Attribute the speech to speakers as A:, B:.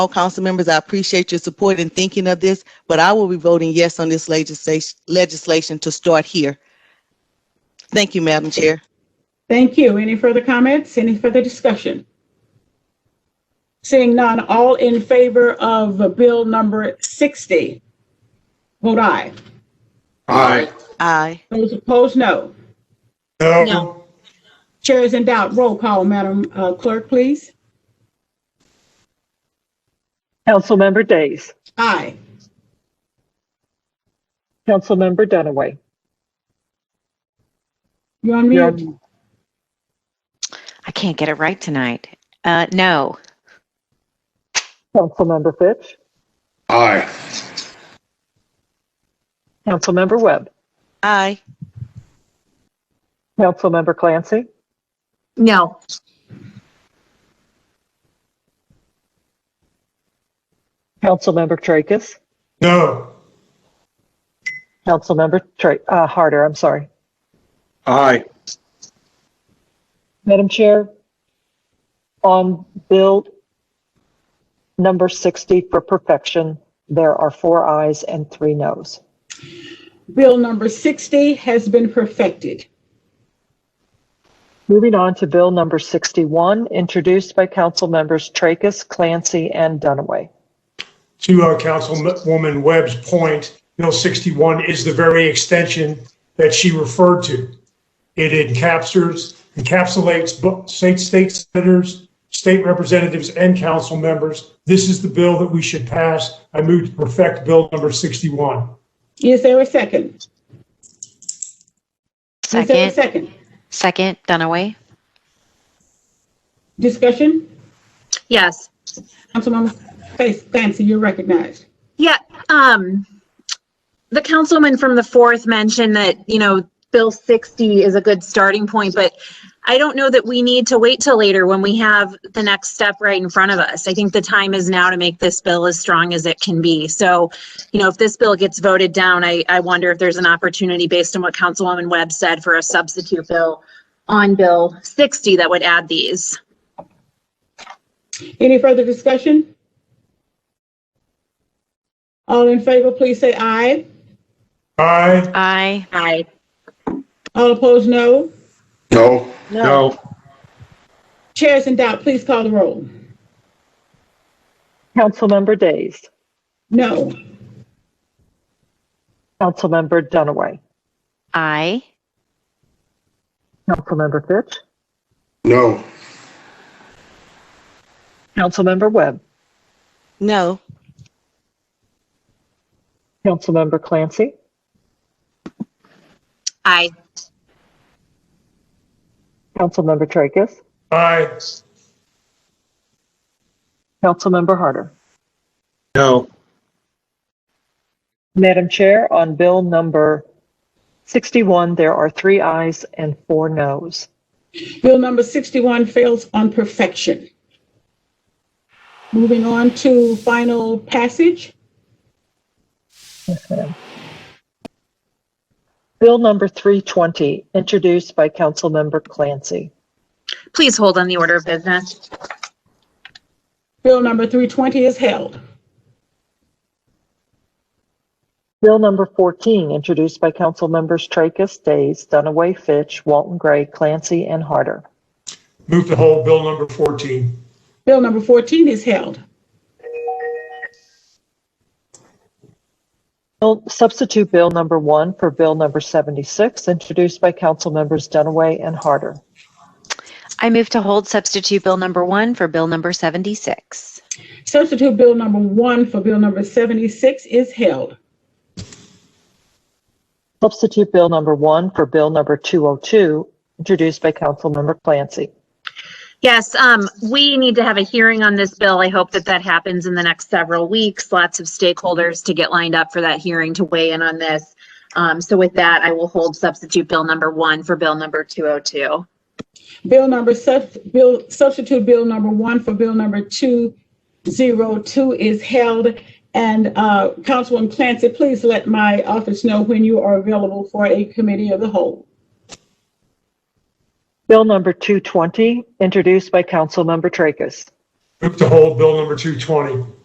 A: all council members, I appreciate your support in thinking of this, but I will be voting yes on this legislation, legislation to start here. Thank you, Madam Chair.
B: Thank you. Any further comments? Any further discussion? Seeing none, all in favor of Bill number 60? Vote aye.
C: Aye.
A: Aye.
B: Those opposed, no.
C: No.
B: Chair is in doubt. Roll call, Madam uh, Clerk, please.
D: Councilmember Days.
B: Aye.
D: Councilmember Dunaway.
B: You're on
D: You're
B: mute.
D: on-
E: I can't get it right tonight. Uh, no.
D: Councilmember Fitch.
C: Aye.
D: Councilmember Webb.
A: Aye.
D: Councilmember Clancy.
F: No.
D: Councilmember Tracus.
C: No.
D: Councilmember Tra- uh, Harder, I'm sorry.
C: Aye.
D: Madam Chair, on Bill number 60 for perfection, there are four ayes and three noes.
B: Bill number 60 has been perfected.
D: Moving on to Bill number 61, introduced by Council Members Tracus, Clancy, and Dunaway.
G: to uh, Councilwoman Webb's point, Bill 61 is the very extension that she referred to. It encapsulates, encapsulates bo- state, state senators, state representatives, and council members. This is the bill that we should pass. I move to perfect Bill number 61.
B: Is there a second? Is there a
E: Second,
B: second?
E: second, Dunaway.
B: Discussion?
F: Yes.
B: Councilmember Fa- Clancy, you're recognized.
F: Yeah. Um, the councilman from the fourth mentioned that, you know, Bill 60 is a good starting point, but I don't know that we need to wait till later when we have the next step right in front of us. I think the time is now to make this bill as strong as it can be. So, you know, if this bill gets voted down, I, I wonder if there's an opportunity based on what Councilwoman Webb said for a substitute bill on Bill 60 that would add these.
B: Any further discussion? All in favor, please say aye.
G: Aye,
E: Aye.
F: Aye.
B: All opposed, no.
C: No. No.
B: Chairs in doubt, please call the roll.
D: Councilmember Days.
B: No.
D: Councilmember Dunaway.
E: Aye.
D: Councilmember Fitch.
C: No.
D: Councilmember Webb.
A: No.
D: Councilmember Clancy.
F: Aye.
D: Councilmember Tracus.
G: aye,
D: Councilmember Harder.
C: No.
D: Madam Chair, on Bill number 61, there are three ayes and four noes.
B: Bill number 61 fails on perfection. Moving on to final passage.
D: Bill number 320, introduced by Councilmember Clancy.
F: Please hold on the order of business.
B: Bill number 320 is held.
D: Bill number 14, introduced by Councilmembers Tracus, Days, Dunaway, Fitch, Walton Gray, Clancy, and Harder.
G: move to hold Bill number 14.
B: Bill number 14 is held.
D: Bill- Substitute Bill number 1 for Bill number 76, introduced by Councilmembers Dunaway and Harder.
E: I move to hold substitute bill number one for bill number 76.
B: Substitute Bill number 1 for Bill number 76 is held.
D: Substitute Bill number 1 for Bill number 202, introduced by Councilmember Clancy.
F: Yes, um, we need to have a hearing on this bill. I hope that that happens in the next several weeks. Lots of stakeholders to get lined up for that hearing to weigh in on this. Um, so with that, I will hold substitute bill number one for bill number 202.
B: Bill number, sub- bill, substitute bill number one for bill number two zero two is held. And uh, Councilwoman Clancy, please let my office know when you are available for a committee of the whole.
D: Bill number 220, introduced by Councilmember Tracus.
G: Move to hold Bill number 220.